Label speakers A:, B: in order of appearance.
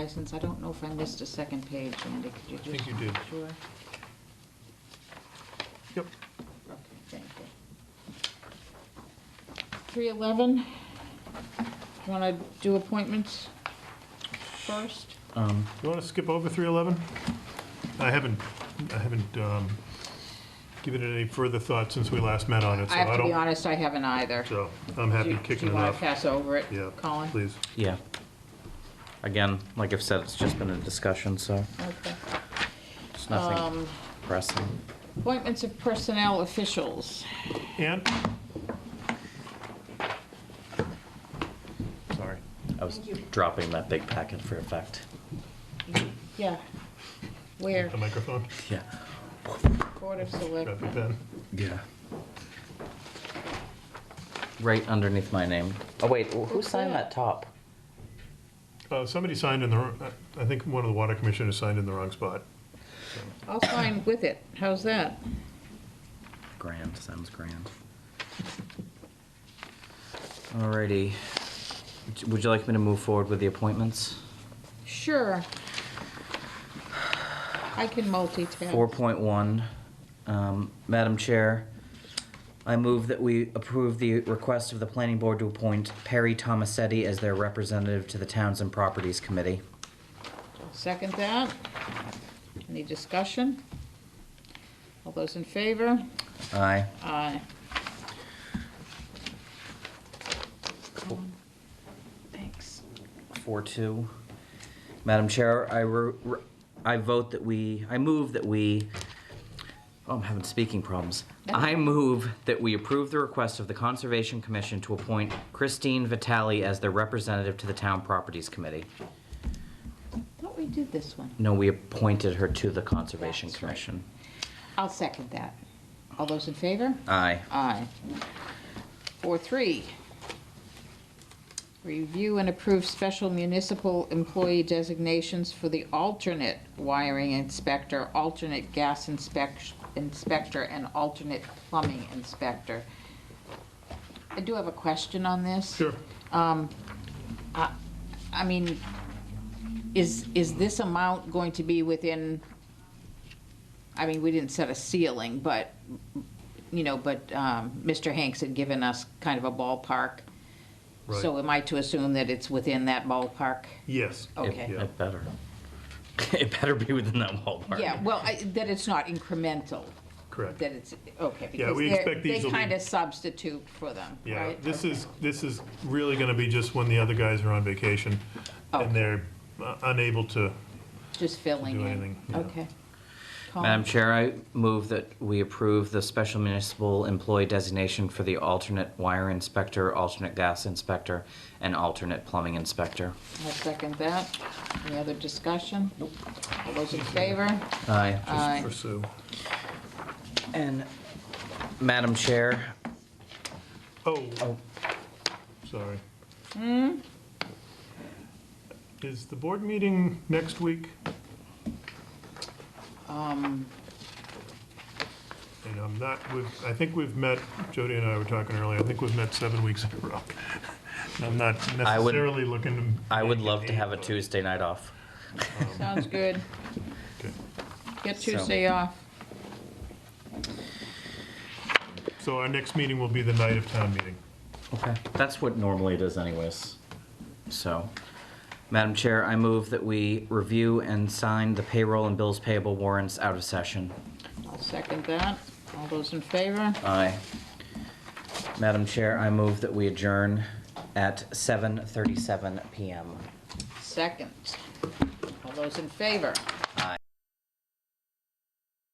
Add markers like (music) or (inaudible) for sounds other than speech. A: license, I don't know if I missed a second page, Andy, could you just?
B: think you did.
A: Sure,
B: Yep.
A: okay, thank you. Three eleven, wanna do appointments first?
B: Um, You want to skip over 311? I haven't, I haven't um, given it any further thought since we last met on it, so
A: I
B: I don't...
A: have to be honest, I haven't either.
B: So, I'm happy
A: Do- Do
B: kicking it
A: you wanna
B: off.
A: pass over it,
B: Yeah,
A: Colin?
B: please.
C: Yeah. Again, like I've said, it's just been a discussion, so
A: Okay.
C: it's
A: Um,
C: nothing pressing.
A: Appointments of personnel officials.
B: Ann? Sorry.
C: I was dropping that big packet for effect.
A: Yeah. Where?
B: The microphone?
C: Yeah.
A: Board of
B: Grab your
A: Selectmen.
B: pen.
C: Yeah. Right underneath my name. Oh, wait, wh- who
A: Who's
C: signed
A: that?
C: that top?
B: Uh, Somebody signed in the, wrong- I think one of the water commissioners signed in the wrong spot.
A: I'll sign with it. How's that?
C: Grand, sounds grand. Alrighty. Would you- Would you like me to move forward with the appointments?
A: Sure. I can multitask.
C: 4.1, um, Madam Chair, I move that we approve the request of the planning board to appoint Perry Tomasetti as their representative to the Towns and Properties Committee.
A: Second that. Any discussion? All those in favor?
C: Aye.
A: Aye. Thanks.
C: 4.2, Madam Chair, I, re- re- I vote that we, I move that we, oh, I'm having speaking problems. I move that we approve the request of the Conservation Commission to appoint Christine Vitale as their representative to the Town Properties Committee.
A: Thought we did this one.
C: No, we appointed her to the Conservation
A: That's right.
C: Commission.
A: I'll second that. All those in favor?
C: Aye.
A: Aye. Four, three. Review and approve special municipal employee designations for the alternate wiring inspector, alternate gas inspec- inspector, and alternate plumbing inspector. I do have a question on this.
B: Sure.
A: I mean, is, is this amount going to be within, I mean, we didn't set a ceiling, but, you know, but um, Mr. Hanks had given us kind of a ballpark. So am I to assume that it's within that ballpark?
B: Yes.
A: Oh.
C: It-
A: Okay.
C: It better. (laughs) It better be within that ballpark.
A: Yeah, well, I- that it's not incremental,
B: Correct.
A: that it's, okay. because
B: we
A: they're-
B: expect these
A: They
B: will be-
A: kind of substitute for them,
B: Yeah,
A: right?
B: this is, this is really gonna be just when the other guys are on vacation
A: Okay.
B: and they're uh, unable to
A: Just filling
B: do
A: in.
B: anything, yeah.
A: Okay.
C: Madam Chair, I move that we approve the special municipal employee designation for the alternate wire inspector, alternate gas inspector, and alternate plumbing inspector.
A: I'll second that. Any other discussion? All those in favor?
C: Aye.
A: Aye.
B: pursue.
C: And Madam Chair,
B: Oh,
C: Oh.
B: sorry.
A: Hmm?
B: Is the board meeting next week?
A: Um,
B: And I'm not, we've, I think we've met, Jody and I were talking earlier, I think we've met seven weeks in a row. (laughs) And I'm not
C: I would-
B: necessarily looking to.
C: I would
B: make it
C: love to
B: eight,
C: have a
B: but-
C: Tuesday night off.
A: Sounds good.
B: Okay.
A: Get
C: So-
A: Tuesday off.
B: So our next meeting will be the night of town meeting.
C: Okay, that's what normally it is anyways. So, Madam Chair, I move that we review and sign the payroll and bills payable warrants out of session.
A: I'll second that. All those in favor?
C: Aye. Madam Chair, I move that we adjourn at 7:37 PM.
A: Second. All those in favor?